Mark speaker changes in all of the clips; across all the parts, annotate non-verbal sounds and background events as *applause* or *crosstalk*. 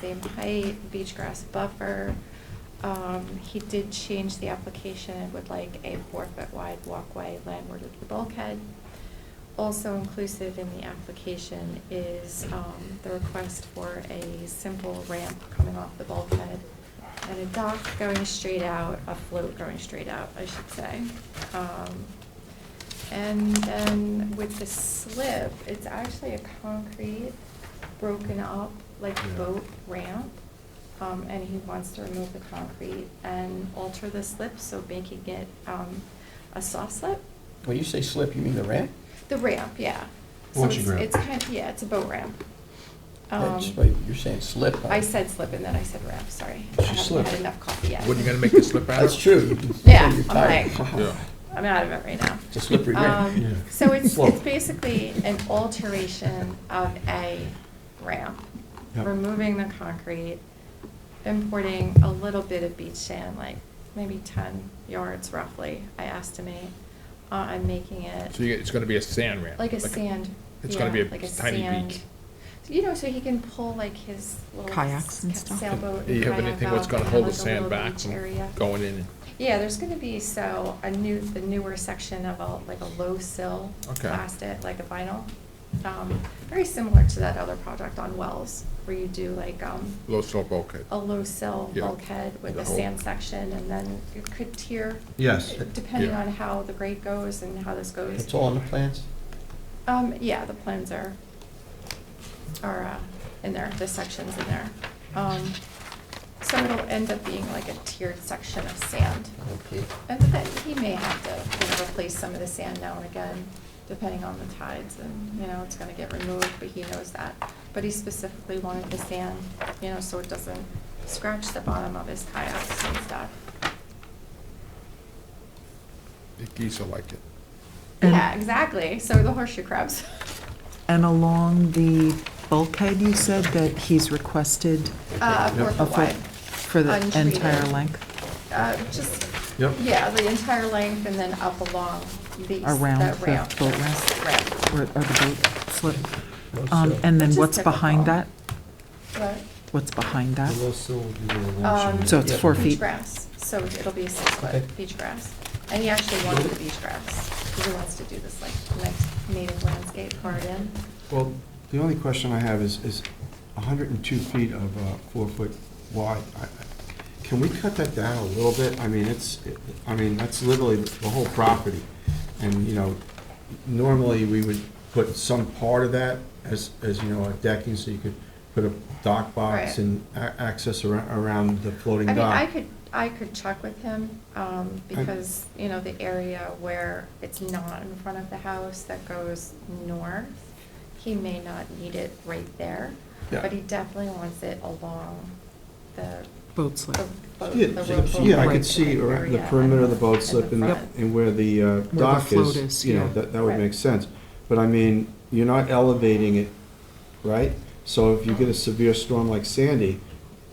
Speaker 1: same height, beach grass buffer. Um, he did change the application and would like a four-foot wide walkway landward of the bulkhead. Also inclusive in the application is, um, the request for a simple ramp coming off the bulkhead and a dock going straight out, a float going straight out, I should say. Um, and then with the slip, it's actually a concrete broken up, like
Speaker 2: Yeah.
Speaker 1: boat ramp. Um, and he wants to remove the concrete and alter the slip, so making it, um, a soft slip.
Speaker 3: When you say slip, you mean the ramp?
Speaker 1: The ramp, yeah. So
Speaker 2: Launching
Speaker 1: it's-
Speaker 2: ramp.
Speaker 1: It's kind of, yeah, it's a boat ramp.
Speaker 3: That's
Speaker 1: Um,
Speaker 3: why You're saying slip, huh?
Speaker 1: I said slip and then I said ramp, sorry.
Speaker 3: She
Speaker 1: I haven't
Speaker 3: slipped.
Speaker 1: had enough coffee yet.
Speaker 4: Wasn't you gonna make the slip out?
Speaker 3: That's true. You can say
Speaker 1: *laughs* Yeah,
Speaker 3: you're
Speaker 1: I'm
Speaker 3: tired.
Speaker 1: like-
Speaker 4: *laughs* Yeah.
Speaker 1: I'm out of it right now.
Speaker 3: It's a slippery
Speaker 1: Um,
Speaker 3: ramp.
Speaker 2: Yeah.
Speaker 1: So it's,
Speaker 3: Whoa.
Speaker 1: it's basically an alteration of a ramp,
Speaker 2: Yep.
Speaker 1: removing the concrete, importing a little bit of beach sand, like maybe ten yards roughly, I estimate, uh, and making it
Speaker 4: So you, it's gonna be a sand ramp?
Speaker 1: like a sand.
Speaker 4: It's gonna be
Speaker 1: yeah,
Speaker 4: a
Speaker 1: like
Speaker 4: tiny
Speaker 1: sand-
Speaker 4: beach.
Speaker 1: So, You know, so he can pull like his little
Speaker 5: Kayaks and
Speaker 1: s-
Speaker 5: stuff.
Speaker 1: Sailboat.
Speaker 4: Do you have
Speaker 1: kayak
Speaker 4: anything that's
Speaker 1: out
Speaker 4: gonna
Speaker 1: and
Speaker 4: hold the
Speaker 1: like a
Speaker 4: sand
Speaker 1: little
Speaker 4: back
Speaker 1: beach area.
Speaker 4: from going in?
Speaker 1: Yeah, there's gonna be, so, a new, the newer section of a, like a low sill
Speaker 4: Okay.
Speaker 1: plastic, like a vinyl. Um, very similar to that other project on Wells, where you do like, um,
Speaker 4: Low slope bulkhead?
Speaker 1: a low sill
Speaker 4: Yeah.
Speaker 1: bulkhead with
Speaker 4: The
Speaker 1: a
Speaker 4: whole-
Speaker 1: sand section, and then you could tier.
Speaker 2: Yes.
Speaker 1: Depending
Speaker 4: Yeah.
Speaker 1: on how the grade goes and how this *laughs* goes.
Speaker 3: It's all on the plans?
Speaker 1: Um, yeah, the plans are, are, uh, in there, the section's in there. Um, so it'll end up being like a tiered section of sand.
Speaker 3: Okay.
Speaker 1: And that he may have to, you know, replace some of the sand now and again, depending on the tides and, you know, it's gonna get removed, but he knows that. But he specifically wanted the sand, you know, so it doesn't scratch the bottom of his kayaks and stuff.
Speaker 4: The geese will like it.
Speaker 5: And-
Speaker 1: Yeah, exactly, so the horseshoe crabs. *laughs*
Speaker 5: And along the bulkhead, you said that he's requested
Speaker 1: Uh, four
Speaker 5: a
Speaker 1: foot
Speaker 5: foot
Speaker 1: wide.
Speaker 5: Oh, for the
Speaker 1: Untreated.
Speaker 5: entire length?
Speaker 1: Uh, just,
Speaker 2: Yep.
Speaker 1: yeah, the entire length and then up along the, that
Speaker 5: Around
Speaker 1: ramp.
Speaker 5: the boat ramp?
Speaker 1: Ramp.
Speaker 5: Or or the boat slip? Um, And then
Speaker 1: Which is
Speaker 5: what's behind that?
Speaker 1: typical. What?
Speaker 5: What's behind that?
Speaker 2: The low sill will be the uh,
Speaker 1: Um,
Speaker 2: launching.
Speaker 5: So it's
Speaker 3: Yeah.
Speaker 5: four
Speaker 1: beach
Speaker 5: feet?
Speaker 1: grass, so it'll be six
Speaker 3: Okay.
Speaker 1: foot beach grass. And he actually wanted the beach grass, because he wants to do this like next native landscape garden.
Speaker 2: Well, the only question I have is, is 102 feet of uh, four-foot wide. I- I- Can we cut that down a little bit? I mean, it's, it- I mean, that's literally the whole property. And, you know, normally, we would put some part of that as, as, you know, a decking, so you could put a dock
Speaker 1: Right.
Speaker 2: box and a- access around, around the floating
Speaker 1: I
Speaker 2: dock.
Speaker 1: mean, I could, I could check with him, um, because, you know, the area where it's not in front of the house that goes north, he may not need it right there,
Speaker 2: Yeah.
Speaker 1: but he definitely wants it along the,
Speaker 5: Boat
Speaker 1: the
Speaker 5: slip?
Speaker 1: boat-
Speaker 2: Yeah,
Speaker 1: the
Speaker 2: so-
Speaker 1: road
Speaker 2: so,
Speaker 1: boat
Speaker 2: Yeah, I
Speaker 1: ramp
Speaker 2: could see around the
Speaker 1: area
Speaker 2: perimeter of the
Speaker 1: and
Speaker 2: boat
Speaker 1: and
Speaker 2: slip and,
Speaker 1: front.
Speaker 2: and where the uh,
Speaker 5: the
Speaker 2: dock
Speaker 5: float is,
Speaker 2: is, you know,
Speaker 5: yeah.
Speaker 2: that, that would
Speaker 1: Right.
Speaker 2: make sense. But I mean, you're not elevating it, right? So if you get a severe storm like Sandy,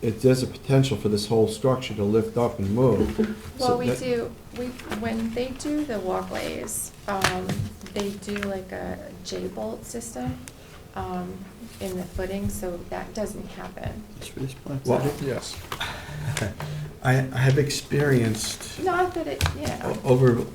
Speaker 2: it, there's a potential for this whole structure to lift up and move. So
Speaker 1: Well, we
Speaker 2: that-
Speaker 1: do, we, when they do the walkways, um, they do like a J-bolt system, um, in the footing, so that doesn't happen.
Speaker 3: It's for this plan.
Speaker 2: Well,
Speaker 4: Yes.
Speaker 2: *laughs* I, I have experienced
Speaker 1: Not that it, you know,
Speaker 2: o- over,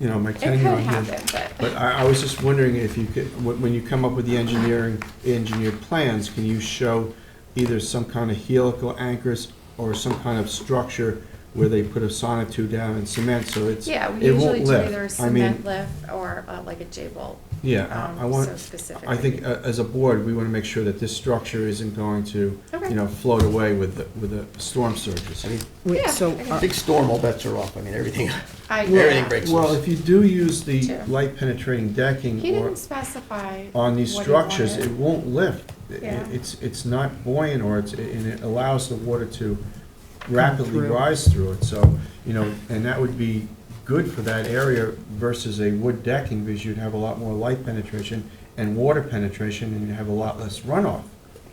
Speaker 2: you know, my
Speaker 1: it
Speaker 2: tenure
Speaker 1: could
Speaker 2: on here.
Speaker 1: happen,
Speaker 2: But
Speaker 1: but,
Speaker 2: I, I was just wondering if you could, when, when you come up with the engineering, engineered plans, can you show either some kind of helical anchors or some kind of structure where they put a sonotube down and cement, so
Speaker 1: *laughs*
Speaker 2: it's,
Speaker 1: yeah, we
Speaker 2: it
Speaker 1: usually
Speaker 2: won't
Speaker 1: do
Speaker 2: lift.
Speaker 1: either a
Speaker 2: I mean,
Speaker 1: cement lift or, uh, like a J-bolt,
Speaker 2: Yeah,
Speaker 1: um,
Speaker 2: I- I
Speaker 1: so
Speaker 2: want,
Speaker 1: specifically.
Speaker 2: I think, uh, as a board, we wanna make sure that this structure isn't going to,
Speaker 1: Okay.
Speaker 2: you know, float away with, the- with the storm surges.
Speaker 3: I mean,
Speaker 5: Wait,
Speaker 1: Yeah,
Speaker 5: so
Speaker 1: I
Speaker 5: are-
Speaker 3: Big storm, all bets are off. I mean, everything,
Speaker 1: I,
Speaker 3: everything breaks
Speaker 2: Well,
Speaker 3: loose.
Speaker 2: if you do use the
Speaker 1: Sure.
Speaker 2: light penetrating decking
Speaker 1: he
Speaker 2: or
Speaker 1: didn't specify
Speaker 2: on these
Speaker 1: what he
Speaker 2: structures,
Speaker 1: wanted.
Speaker 2: it won't lift. I-
Speaker 1: Yeah.
Speaker 2: It's, it's not buoyant, or it's, and it allows the water to rapidly
Speaker 5: through.
Speaker 2: rise through it, so, you know, and that would be good for that area versus a wood decking, because you'd have a lot more light penetration and water penetration, and you'd have a lot less runoff.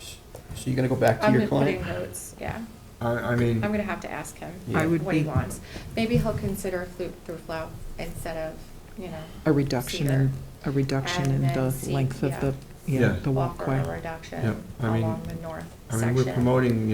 Speaker 3: So you're gonna go back to
Speaker 1: I'm
Speaker 3: your
Speaker 1: putting
Speaker 3: client?
Speaker 1: notes, yeah.
Speaker 2: I, I
Speaker 1: I'm
Speaker 2: mean,
Speaker 1: gonna have to ask him
Speaker 3: I
Speaker 5: would
Speaker 1: what he
Speaker 5: be-
Speaker 1: wants. Maybe he'll consider flute through flow instead of, you know.
Speaker 5: a reduction
Speaker 1: cedar.
Speaker 5: in, a reduction
Speaker 1: And
Speaker 5: in
Speaker 1: then
Speaker 5: the
Speaker 1: see-
Speaker 5: length of
Speaker 1: yeah.
Speaker 5: the, yeah,
Speaker 2: Yeah.
Speaker 5: the
Speaker 1: Offer
Speaker 5: walkway?
Speaker 1: a reduction
Speaker 2: Yep, I mean-
Speaker 1: along the north
Speaker 2: I
Speaker 1: section.
Speaker 2: mean, we're promoting,